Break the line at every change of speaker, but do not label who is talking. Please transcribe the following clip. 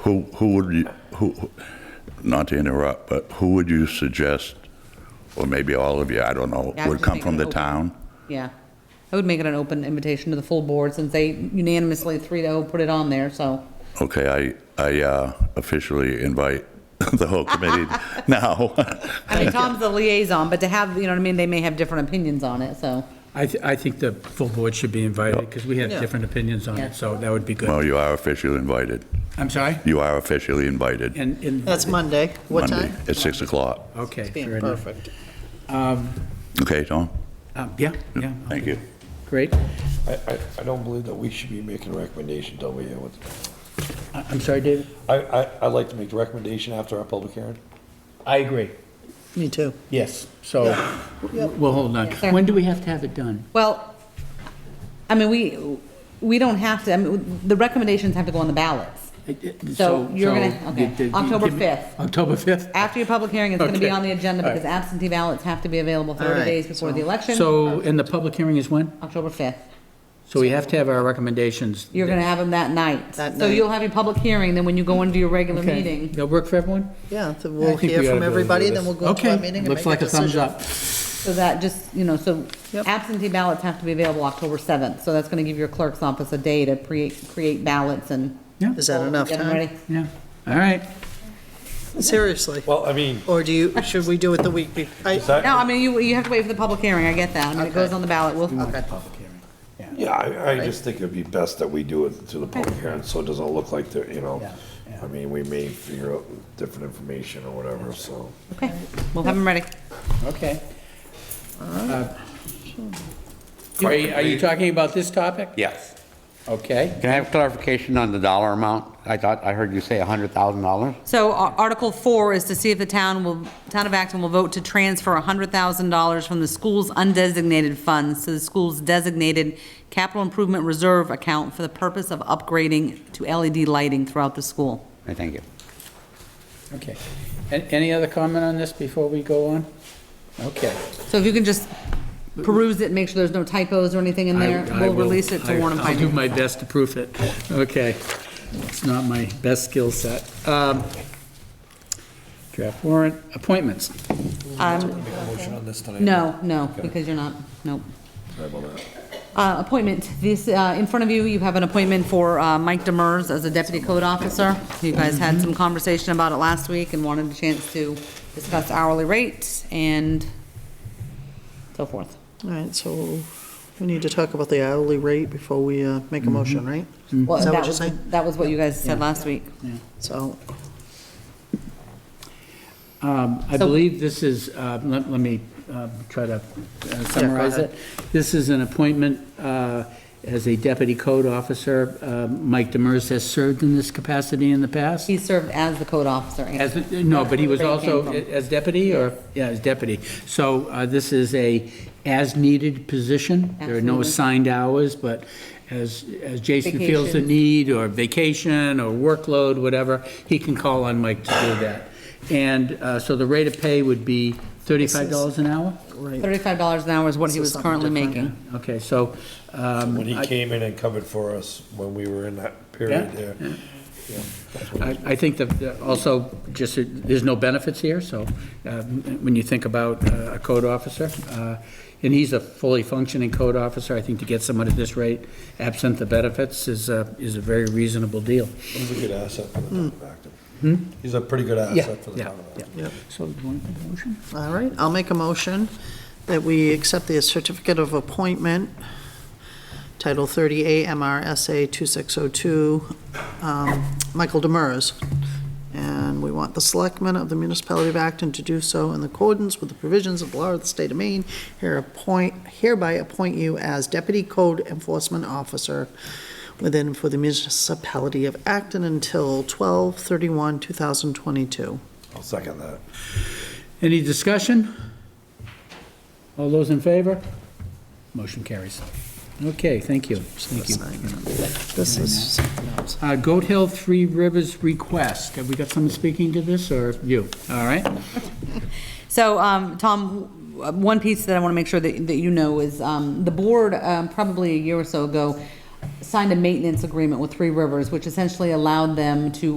Who, who would you, who, who- not to interrupt, but who would you suggest, or maybe all of you, I don't know,
Yeah, I
would
just
come
think
from
an
the
open-
town?
Yeah. I would make it an open invitation to the full board since they unanimously, three to oh, put it on there, so.
Okay, I, I uh, officially invite the whole committee now.
I mean, Tom's the liaison, but to have, you know what I mean, they may have different opinions on it, so.
I, th- I think the full board should be invited, because we have different opinions on
Yeah.
it, so that would be good.
Well, you are officially invited.
I'm sorry?
You are officially invited.
And, and,
That's Monday. What
Monday
time?
At 6 o'clock.
okay, fair
Uh, Being
enough.
perfect.
Okay, Tom?
Um, Yeah, yeah,
Thank you.
great.
I, I, I don't believe that we should be making recommendations over here. What-
I- I'm sorry, David?
I, I, I'd like to make the recommendation after our public hearing.
I agree.
Me too.
Yes, so, we'll hold on.
sir.
When do we have to have it done?
Well, I mean, we, we don't have to, I mean, the recommendations have to go on the ballots. So you're gonna-
so
okay,
the- the-
October
give me-
5th.
October 5th?
After your public hearing, it's gonna be
Okay.
on the agenda
All right.
because absentee ballots have to be available
All
thirty
right.
days before the election.
So, and the public hearing is when?
October fifth.
So we have to have our recommendations.
You're gonna have them that night.
That
So
night.
you'll have your public hearing, then when you go into your regular
Okay.
meeting,
That'll work for everyone?
Yeah, so
I
we'll
think we
hear
ought to
from
be able to do
everybody,
this.
then we'll go to our meeting and make a
Okay, looks like a thumbs
decision.
up.
so that just, you know, so
Yep.
absentee ballots have to be available October seventh. So that's gonna give your clerk's office a day to create, create ballots and.
Yeah,
Is that enough
Get them
time?
ready.
yeah, all right.
Seriously?
Well, I mean,
Or do you, should we do it the week before?
is that?
No, I mean, you, you have to wait for the public hearing, I get that. I mean, it goes on the ballot, we'll,
Yeah, I, I just think it'd be best that we do it to the public hearing, so it doesn't look like they're, you know, I mean, we may figure out different information or whatever, so.
okay, we'll have them ready.
Okay. Uh, Are you, are you talking about this topic?
Yes.
Okay.
Can I have clarification on the dollar amount? I thought, I heard you say $100,000.
So Ar- Article 4 is to see if the town will, Town of Acton will vote to transfer $100,000 from the school's undesignated funds to the school's designated capital improvement reserve account for the purpose of upgrading to LED lighting throughout the school.
I thank you.
Okay. And any other comment on this before we go on? Okay.
So if you can just peruse it, make sure there's no typos or anything in there,
I- I
we'll
will- Um,
release it to
I-
Warren and
I'll do
Finance.
my best to proof it. Okay. It's not my best skill set. Um, Draft warrant, appointments.
Um, No, no, because you're not, nope. Uh, Appointment, this, uh, in front of you, you have an appointment for uh, Mike Demers as a deputy code officer. You guys had some conversation about it last week and wanted a chance to discuss hourly rates and so forth.
All right, so we need to talk about the hourly rate before we uh, make
Mm-hmm.
a motion, right?
Well,
Is that
that
what you're
was-
saying?
That was what you guys said last week.
So,
Um, I
So-
believe this is, uh, let let me um, try to uh, summarize
ahead.
it. This is an appointment uh, as a deputy code officer. Uh, Mike Demers has served in this capacity in the past.
He served as the code officer. and-
As, no, but he was
Where it came
also
from.
as deputy, or, yeah, as deputy. So uh, this is a as-needed position. There are no
Absolutely.
assigned hours, but as, as Jason feels the
Vacations.
need, or vacation, or workload, whatever, he can call on Mike to do that. And uh, so the rate of pay would be $35 an hour?
right,
Thirty-five dollars an hour is what he
So
was
something
currently
different,
making.
Okay, so, um,
When he came in and covered for us, when we were in that period
Yeah.
there.
I I think that- that also, just, that there's no benefits here, so uh, when you think about uh, a code officer, uh, and he's a fully functioning code officer, I think to get someone at this rate, absent the benefits, is, uh, is a very reasonable deal.
He's a good asset for the
Hmm.
town of Acton. He's a pretty good
Yeah,
asset for the
yeah,
town of Acton.
yeah.
Yep.
So, do you want a motion?
all right. I'll make a motion that we accept the certificate of appointment, Title 38 MRSA 2602, um, Michael Demers. And we want the selectmen of the municipality of Acton to do so in accordance with the provisions of the law of the state of Maine. Here appoint, hereby appoint you as deputy code enforcement officer within for the municipality of Acton until 12/31/2022.
I'll second that.
Any discussion? All those in favor? Motion carries. Okay, thank you, thank you.
This is something else.
Uh, Goat Hill Three Rivers request, have we got someone speaking to this, or you? All right?
So, um, Tom, w- one piece that I want to make sure that, that you know is, um, the board, um, probably a year or so ago, signed a maintenance agreement with Three Rivers, which essentially allowed them to